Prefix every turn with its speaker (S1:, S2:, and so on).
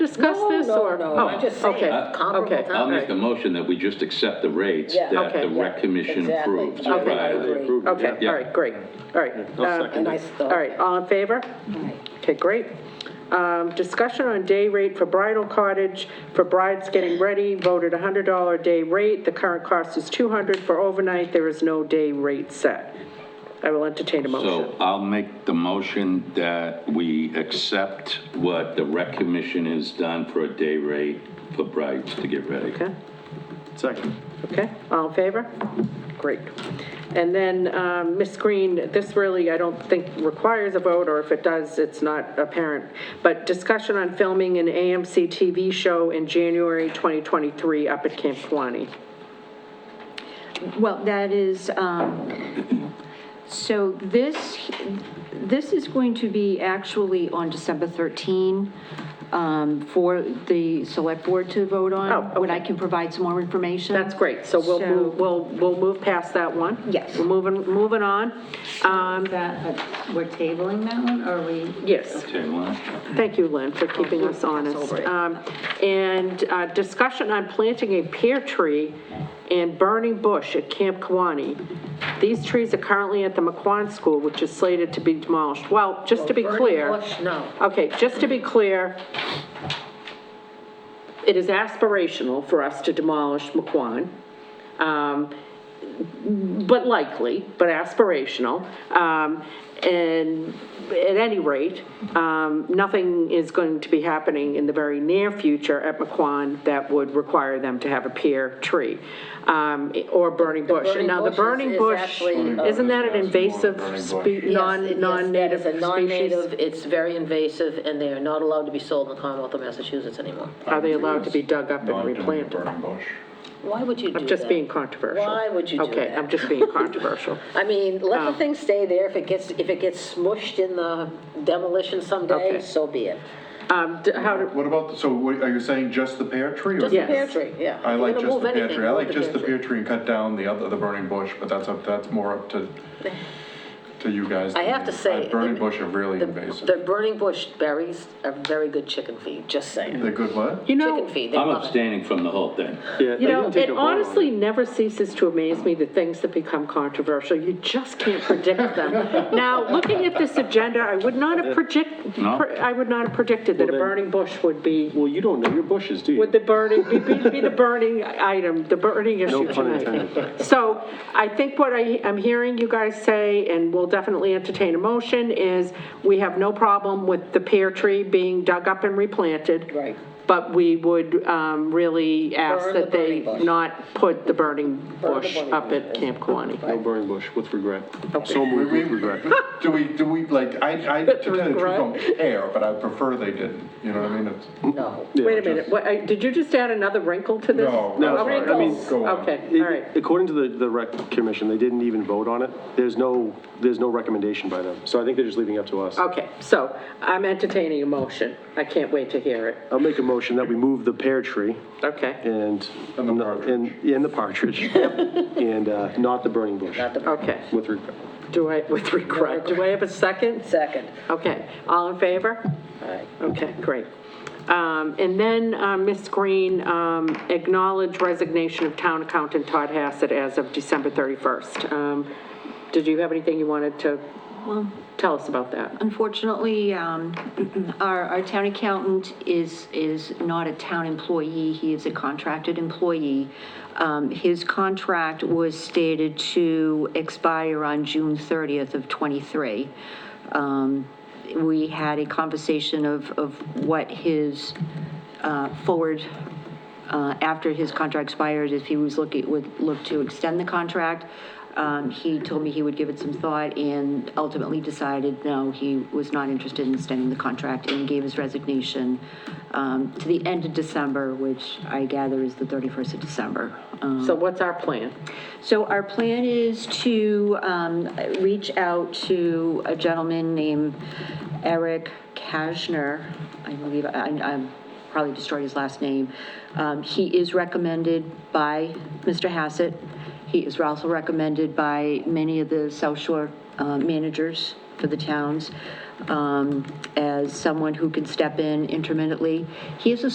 S1: discuss
S2: No,
S1: this,
S2: no,
S1: or?
S2: no,
S1: Oh,
S2: I'm just saying,
S1: okay,
S2: comparable
S1: okay,
S2: time.
S3: I'll make a
S1: all right.
S3: motion that we just accept the rates
S2: Yeah.
S3: that
S1: Okay.
S3: the rec commission
S2: Yeah, exactly.
S3: approved.
S2: Okay.
S3: prior to the approval.
S1: Okay,
S3: Yeah.
S1: all right, great, all right.
S3: I'll
S1: Uh,
S3: second
S2: And I
S1: All
S2: thought,
S1: right, all in favor? Okay, great. Um, Discussion on day rate for bridal cottage, for brides getting ready, voted $100 day rate. The current cost is 200 for overnight, there is no day rate set. I will entertain a
S3: So
S1: motion.
S3: I'll make the motion that we accept what the rec commission has done for a day rate for brides to get ready.
S1: Okay,
S4: Second.
S1: okay, all in favor? Great. And then, um, Ms. Green, this really, I don't think requires a vote, or if it does, it's not apparent, but discussion on filming an AMC TV show in January 2023 up at Camp Kewaunee.
S5: Well, that is, um, so this, this is going to be actually on December 13 um, for the select board to vote on.
S1: Oh,
S5: When I
S1: okay.
S5: can provide some more information.
S1: That's great, so we'll,
S5: So-
S1: move- we'll, we'll move past that one.
S5: Yes.
S1: We're moving, moving on. Um,
S6: That, but we're tabling that one, or are we?
S1: Yes,
S3: Okay, Lon?
S1: thank you, Lynn, for keeping us honest. Um, And uh, discussion on planting a pear tree and burning bush at Camp Kawani. These trees are currently at the McQuon School, which is slated to be demolished. Well, just to be
S2: Well, burning
S1: clear.
S2: bush, no.
S1: Okay, just to be clear, it is aspirational for us to demolish McQuon. Um, but likely, but aspirational. Um, And at any rate, um, nothing is going to be happening in the very near future at McQuon that would require them to have a pear tree um, or burning bush.
S2: burning
S1: Now, the
S2: bush is-
S1: burning
S2: is
S1: bush,
S2: actually, uh,
S1: isn't that an invasive, spe-
S2: Yes,
S1: non-
S2: it-
S1: non-native
S2: Yes, that is a non-native,
S1: species?
S2: it's very invasive, and they are not allowed to be sold in the Commonwealth of Massachusetts anymore.
S1: Are they allowed to be dug up and replanted?
S4: Burning bush.
S2: Why would you do that?
S1: I'm just being controversial.
S2: Why would you do
S1: Okay,
S2: that?
S1: I'm just um, being controversial.
S2: I mean, let the thing stay there, if it gets, if it gets smushed in the demolition
S1: Okay.
S2: someday, so be it.
S1: Um, d- How, do-
S4: What about, so what- are you saying just the pear tree? or-
S2: Just the
S1: Yes.
S2: pear tree, yeah.
S4: I
S2: If we're
S4: like
S2: gonna
S4: just
S2: move
S4: the pear
S2: anything,
S4: tree, I
S2: move
S4: like just the pear tree and cut down the other, the burning bush, but that's up, that's more up to, to you guys.
S2: I
S4: than
S2: have to
S4: me.
S2: say.
S4: Uh, Burning
S2: the-
S4: bush are really
S2: the-
S4: invasive.
S2: The burning bush berries are very good chicken feed, just saying.
S4: They're good what?
S1: you know.
S2: Chicken feed, they
S3: I'm
S2: love it.
S3: abstaining from the whole thing.
S1: You know, it honestly never ceases to amaze me, the things that become controversial, you just can't predict them. Now, looking at this agenda, I would not have predict,
S3: No?
S1: pre- I would not have predicted that a
S7: Well, then-
S1: burning bush would be,
S7: Well, you don't know your bushes, do you?
S1: would the burning, be- be be the burning item, the burning issue
S7: pun
S1: tonight.
S7: intended.
S1: So I think what I, I'm hearing you guys say, and we'll definitely entertain a motion, is we have no problem with the pear tree being dug up and replanted.
S2: Right.
S1: But we would um, really ask
S2: Burn the
S1: that they
S2: burning bush.
S1: not put the burning
S2: Burn the
S1: bush
S2: burning
S1: up at
S2: bush.
S1: Camp Kewaunee.
S7: No burning bush, with regret.
S1: Okay.
S7: So
S4: We-
S7: moved,
S4: we-
S7: with regret.
S4: Do we, do we, like, I, I, to tell you the truth,
S1: Regret?
S4: don't care, but I prefer they didn't, you know what I mean? It's-
S2: No.
S1: Wait a minute, what, I- did you just add another wrinkle to this?
S4: No, no,
S1: Oh,
S4: sorry, I mean,
S1: wrinkles.
S4: go on.
S1: Okay, all right.
S7: It- According to the, the rec commission, they didn't even vote on it. There's no, there's no recommendation by them. So I think they're just leaving it up to us.
S1: Okay, so I'm entertaining a motion. I can't wait to hear it.
S7: I'll make a motion that we move the pear tree
S1: Okay,
S7: and.
S4: And the partridge.
S7: And, and the partridge. And, uh, not the burning bush,
S1: okay.
S7: with regret.
S1: Do I, with regret, do I have a second?
S2: Second.
S1: Okay, all in favor?
S2: Aye.
S1: Okay, great. Um, And then, uh, Ms. Green, um, acknowledge resignation of town accountant Todd Hassett as of December 31st. Um, Did you have anything you wanted to tell us about that?
S5: Unfortunately, um, our, our town accountant is, is not a town employee, he is a contracted employee. Um, His contract was stated to expire on June 30th of '23. We had a conversation of, of what his uh, forward, uh, after his contract expired, if he was looking, would look to extend the contract. Um, He told me he would give it some thought and ultimately decided, no, he was not interested in extending the contract and gave his resignation um, to the end of December, which I gather is the 31st of December. Um,
S1: So what's our plan?
S5: so our plan is to um, reach out to a gentleman named Eric Kashner. I believe, I, I probably destroyed his last name. Um, He is recommended by Mr. Hassett. He is also recommended by many of the South Shore uh, managers for the towns. um, as someone who can step in intermittently. He is a